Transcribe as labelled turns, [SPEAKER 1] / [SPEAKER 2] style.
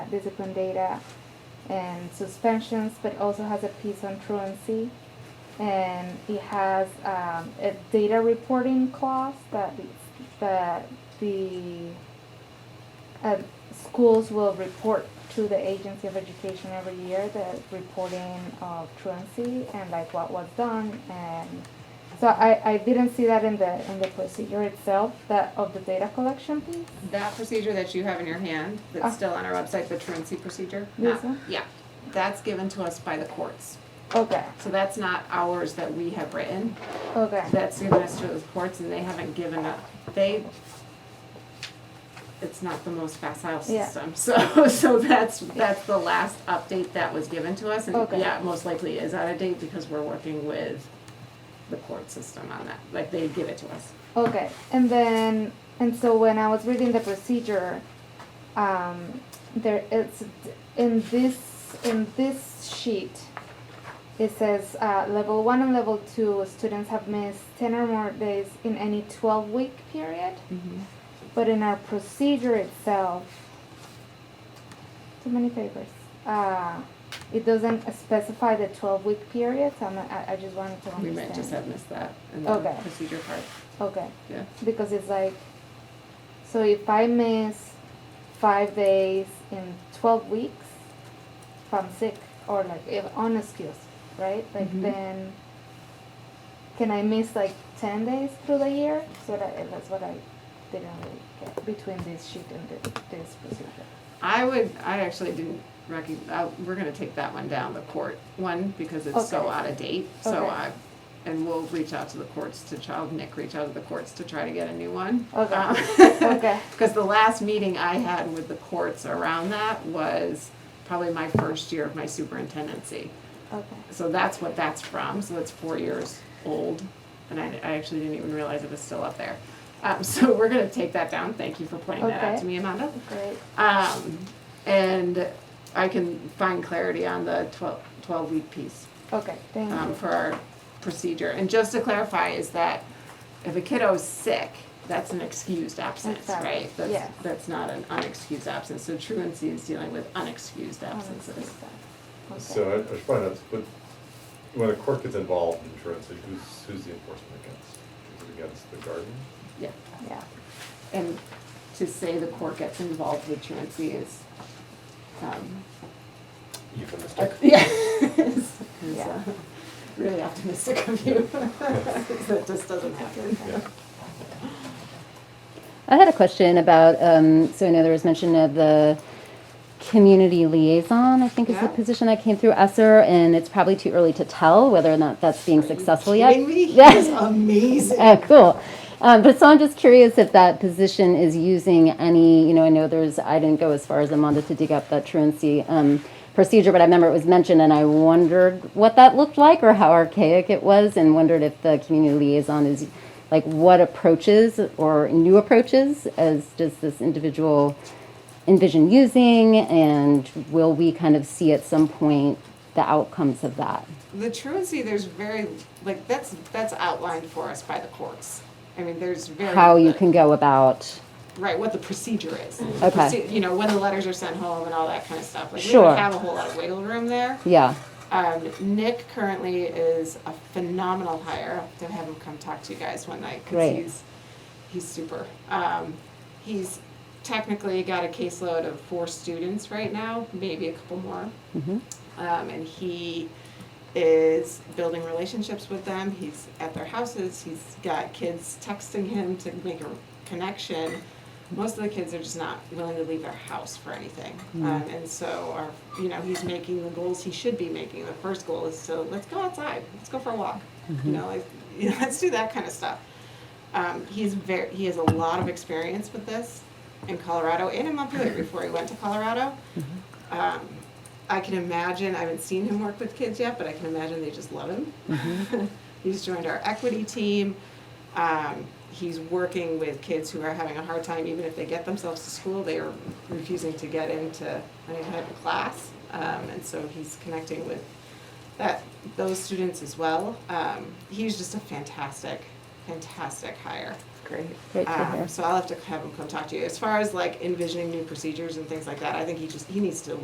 [SPEAKER 1] discipline data and suspensions, but also has a piece on truancy. And it has um, a data reporting clause that the, that the um, schools will report to the Agency of Education every year the reporting of truancy and like what was done and so I, I didn't see that in the in the procedure itself that of the data collection piece.
[SPEAKER 2] That procedure that you have in your hand,
[SPEAKER 1] Ah.
[SPEAKER 2] that's still on our website, the truancy procedure?
[SPEAKER 1] Yes,
[SPEAKER 2] that-
[SPEAKER 1] ma'am.
[SPEAKER 2] Yeah, that's given to us by the courts.
[SPEAKER 1] Okay,
[SPEAKER 2] So that's not ours that we have written.
[SPEAKER 1] okay,
[SPEAKER 2] That's given us to the courts and they haven't given up, they, it's not the most facile
[SPEAKER 1] Yeah.
[SPEAKER 2] system. So, so that's, that's the last update that was given to us. And
[SPEAKER 1] Okay.
[SPEAKER 2] yeah, it most likely is out of date because we're working with the court system on that. Like they give it to us.
[SPEAKER 1] okay. And then and so when I was reading the procedure, um, there it's in this in this sheet. It says uh, level one and level two students have missed ten or more days in any twelve week period. But in our procedure itself, too many papers. Uh, it doesn't specify the twelve week period, so I'm, I, I just wanted to
[SPEAKER 2] We might just
[SPEAKER 1] understand.
[SPEAKER 2] have missed that in the
[SPEAKER 1] Okay.
[SPEAKER 2] procedure part,
[SPEAKER 1] Okay,
[SPEAKER 2] yeah.
[SPEAKER 1] because it's like, so if I miss five days in twelve weeks, if I'm sick or like if on excuse, right? Like
[SPEAKER 3] Mm-hmm.
[SPEAKER 2] Mhm.
[SPEAKER 1] then, can I miss like ten days through the year? So that that's what I didn't really get between this sheet and this, this procedure.
[SPEAKER 2] I would, I actually didn't recog I, we're gonna take that one down, the court one, because it's so
[SPEAKER 1] Okay.
[SPEAKER 2] out of date, so
[SPEAKER 1] Okay.
[SPEAKER 2] I, and we'll reach out to the courts to child, Nick, reach out to the courts to try to get a new one.
[SPEAKER 1] Okay.
[SPEAKER 2] Um,
[SPEAKER 1] Okay.
[SPEAKER 2] Cause the last meeting I had with the courts around that was probably my first year of my superintendency.
[SPEAKER 1] Okay.
[SPEAKER 2] So that's what that's from, so it's four years old, and I, I actually didn't even realize it was still up there. Um, so we're gonna take that down, thank you for pointing that out
[SPEAKER 1] Okay.
[SPEAKER 2] to me, Amanda.
[SPEAKER 1] Great.
[SPEAKER 2] Um, and I can find clarity on the 12, 12 week piece
[SPEAKER 1] Okay. Thank
[SPEAKER 2] um,
[SPEAKER 1] you.
[SPEAKER 2] for our procedure. And just to clarify, is that if a kiddo is sick, that's an excused absence,
[SPEAKER 1] Exactly,
[SPEAKER 2] right? That's,
[SPEAKER 1] yeah.
[SPEAKER 2] that's not an unexcused absence. So truancy is dealing with unexcused
[SPEAKER 1] Um,
[SPEAKER 2] absences.
[SPEAKER 1] Okay.
[SPEAKER 4] So I, I should find out, but when the court gets involved in insurance, who's, who's the enforcement against? Is it against the guardian?
[SPEAKER 2] Yeah.
[SPEAKER 1] yeah.
[SPEAKER 2] And to say the court gets involved with truancy is, um,
[SPEAKER 4] Euphemistic.
[SPEAKER 2] Yeah. It's- it's,
[SPEAKER 1] Yeah.
[SPEAKER 2] uh, Really optimistic of you. That just doesn't happen.
[SPEAKER 4] Yeah.
[SPEAKER 3] I had a question about, um, so I know there was mention of the community liaison, I think is
[SPEAKER 2] Yeah.
[SPEAKER 3] the position that came through ESSER, and it's probably too early to tell whether or not that's being successful yet.
[SPEAKER 2] Kidding me?
[SPEAKER 3] Yeah.
[SPEAKER 2] He's amazing.
[SPEAKER 3] Oh, cool. Um, but so I'm just curious if that position is using any, you know, I know there's, I didn't go as far as Amanda to dig up that truancy um, procedure, but I remember it was mentioned and I wondered what that looked like or how archaic it was and wondered if the community liaison is like what approaches or new approaches as does this individual envision using and will we kind of see at some point the outcomes of that?
[SPEAKER 2] The truancy, there's very, like, that's, that's outlined for us by the courts. I mean, there's very.
[SPEAKER 3] How you can go about,
[SPEAKER 2] Right, what the procedure is.
[SPEAKER 3] Okay.
[SPEAKER 2] Proce- You know, when the letters are sent home and all that kind of stuff. Like, we
[SPEAKER 3] Sure.
[SPEAKER 2] don't have a whole lot of wiggle room there.
[SPEAKER 3] yeah,
[SPEAKER 2] Um, Nick currently is a phenomenal hire. I'll have to have him come talk to you guys one night because
[SPEAKER 3] Great.
[SPEAKER 2] he's, he's super. Um, he's technically got a caseload of four students right now, maybe a couple more. Um, and he is building relationships with them. He's at their houses. He's got kids texting him to make a connection. Most of the kids are just not willing to leave their house for anything. Um, and so, our, you know, he's making the goals he should be making. The first goal is to let's go outside, let's go for a walk. You know, like, you know, let's do that kind of stuff. Um, he's very, he has a lot of experience with this in Colorado and in Montpelier before he went to Colorado. Um, I can imagine, I haven't seen him work with kids yet, but I can imagine they just love him. he's joined our equity team. Um, he's working with kids who are having a hard time, even if they get themselves to school, they are refusing to get into any type of class. Um, and so he's connecting with that, those students as well. Um, he's just a fantastic fantastic hire.
[SPEAKER 5] Great.
[SPEAKER 3] Great to
[SPEAKER 2] Um,
[SPEAKER 3] hear.
[SPEAKER 2] So I'll have to have him come talk to you. As far as like envisioning new procedures and things like that, I think he just, he needs to